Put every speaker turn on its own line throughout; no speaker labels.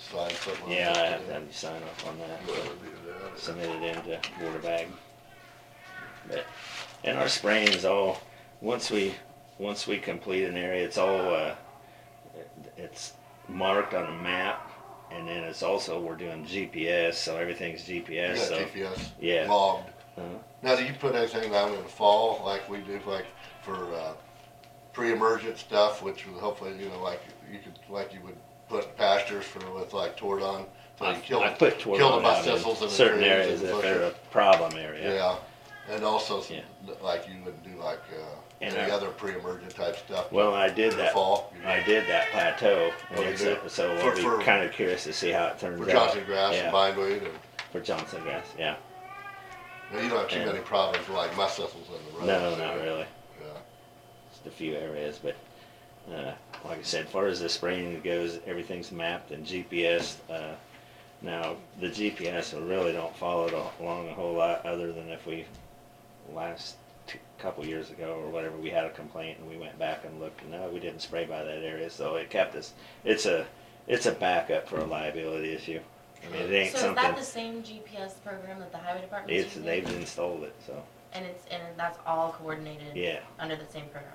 something. like
Yeah, I
that.
have to have you sign off on that,
Whoever
but
did that.
submit it into water bag. But, and our spraying is all, once we, once we complete an area, it's all, uh, it's marked on a map, and then it's also, we're doing GPS, so everything's
You
GPS,
got
so.
GPS.
Yeah.
Logged.
Uh-huh.
Now, do you put anything down in the fall, like we do, like for, uh, pre-emergent stuff, which will hopefully, you know, like you could, like you would put pastures for, with like tordon? So you
I
kill
I put
kill
Toradon
by
out
thistles
in
and the
certain
trees
areas
and
if they're a
bushes.
problem area.
Yeah, and also, s-
Yeah.
like you would do like, uh,
And
any
I-
other pre-emergent type stuff.
Well, I did
in the
that,
Fall. you
I
know,
did that plateau, and
Oh, you
it's,
did?
a- so
For-
I'll
for-
be kinda curious to see how it turns out.
For Johnson grass
Yeah.
and bindweed and,
For Johnson grass, yeah.
now, you don't have too
Yeah.
many problems with, like my thistles in the road.
No, not really.
Yeah.
Just a few areas, but uh, like I said, as far as the spraying goes, everything's mapped and GPS. Uh, now the GPS I really don't follow it along a whole lot, other than if we last t- couple years ago or whatever we had a complaint and we went back and looked. and No, we didn't spray by that area, so it kept us. It's a it's a backup for a liability issue. I mean, it ain't
So is that
something.
the same GPS program that the highway department
It's
uses?
they've installed it, so
And it's, and that's all coordinated?
yeah.
Under the same program?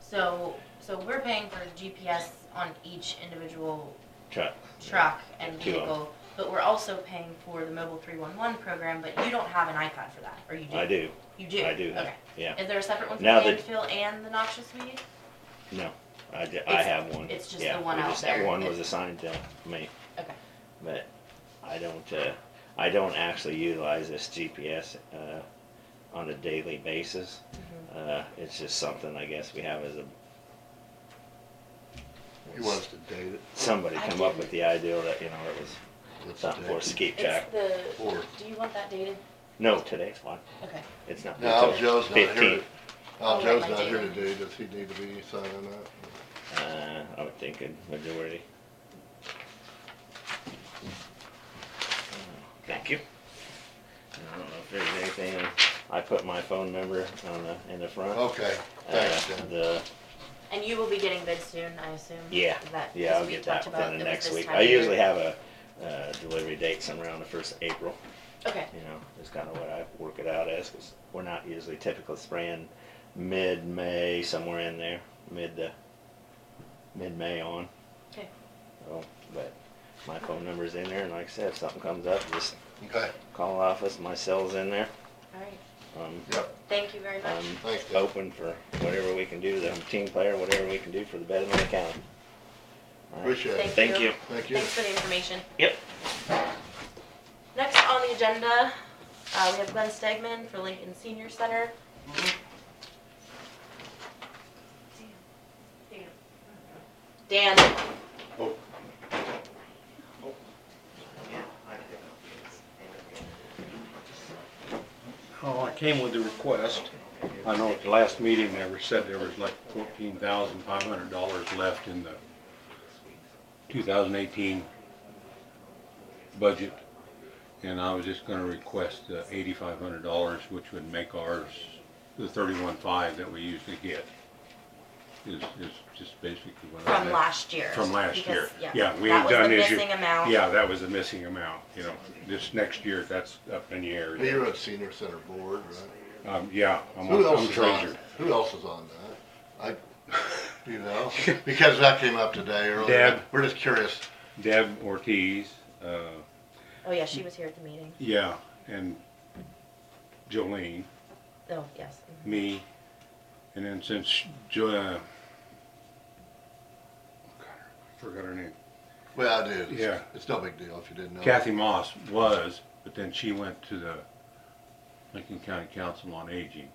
So, so we're paying for GPS on each individual
Truck.
truck and
Two of 'em.
vehicle, but we're also paying for the mobile three-one-one program, but you don't have an iPod for that, or you do?
I do.
You do?
I do have-
Okay.
yeah.
Is there a separate one for
Now that-
landfill and the noxious weed?
No, I, ju- I
It's-
have one.
it's just
Yeah,
the one
we
out
just-
there
That one
that-
was assigned to me,
Okay.
but I don't, uh, I don't actually utilize this GPS, uh, on a daily basis.
Mm-hmm.
Uh, it's just something I guess we have as a,
He wants to date it,
somebody
I
come up
didn't-
with the idea that, you know, it was
let's
something for us to
date
keep track.
It's the,
it, or.
do you want that dated?
No, today's one.
Okay.
It's not.
Now,
until
Joe's not here, to-
15.
Oh,
now Joe's
right,
not
my
here
date.
today, does he need to be signing up?
Uh, I would think a majority. Thank you. I don't know if there's anything, I put my phone number on the, in the front.
Okay,
Uh,
Oh, thanks, Dan.
The,
And you will be getting bids soon, I assume?
yeah,
Is that-
yeah,
'cause
I'll
we
get
talked
that within
about
the
it was
next
this
week.
time
I
of year.
usually have a, uh, delivery date somewhere around the first of April,
Okay,
you know, is kinda what I work it out as, cause we're not usually typically spraying mid-May, somewhere in there, mid to, mid-May on.
okay.
So, but my phone number's in there, and like I said, if something comes up, just
Okay,
call office, my cell's in there.
All right.
Um,
yep,
Thank you very much.
I'm
thanks, Dan.
open for whatever we can do, the team player, whatever we can do for the betterment of the county. All right.
Appreciate it.
Thank you.
Thank you.
Thanks for the information.
Yep.
Next on the agenda, uh, we have Glenn Stegman for Lincoln Senior Center. Dan,
Oh, I came with the request. I know at the last meeting, they were said there was like fourteen thousand five hundred dollars left in the two thousand eighteen budget. And I was just gonna request the eighty-five hundred dollars, which would make ours the thirty-one five that we usually get. Is, is just basically what I.
from
had.
last year.
From last year.
because,
Yeah, we
that
had
was the
done issue.
Missing amount.
Yeah, that was the missing amount, you know. This next year, that's up in the air.
You're on senior center board, right?
Um, yeah, I'm,
Who else
I'm
is on,
treasurer.
who else is on that? I, you know, because that came up today earlier.
Deb.
We're just curious.
Deb Ortiz, uh,
Oh, yeah, she was here at the meeting.
yeah, and Jolene,
Oh, yes. mhm.
me, and then since Jo, uh, forgot her name,
Well, I did.
Yeah.
It's no big deal if you didn't know.
Kathy Moss was, but then she went to the Lincoln County Council on Aging.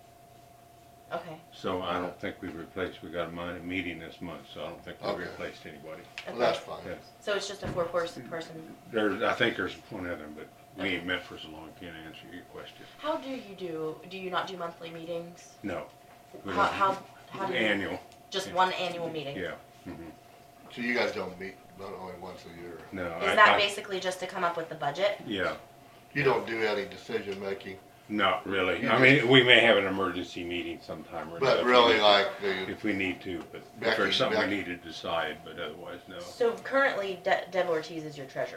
Okay,
So I don't think we've replaced, we got a mon- meeting this month, so I don't think we've
Okay.
replaced anybody.
Well,
okay.
that's fine.
Yeah.
So it's just a four-person person.
There's, I think there's one other, but we ain't met for so long, can't answer your question.
How do you do, do you not do monthly meetings?
No. we
How,
don't-
how, how do you?
Annual,
Just one annual meeting?
yeah.
So you guys don't meet, but only once a year.
No. I-
Is that
I-
basically just to come up with the budget?
Yeah,
You don't do any decision making,
not really.
You
I
just-
mean, we may have an emergency meeting sometime or another
but
if
really
we-
like the,
If we need to, but if
Becky-
there's something we
Becky-
need to decide, but otherwise, no.
So currently De- Deb Ortiz is your treasurer.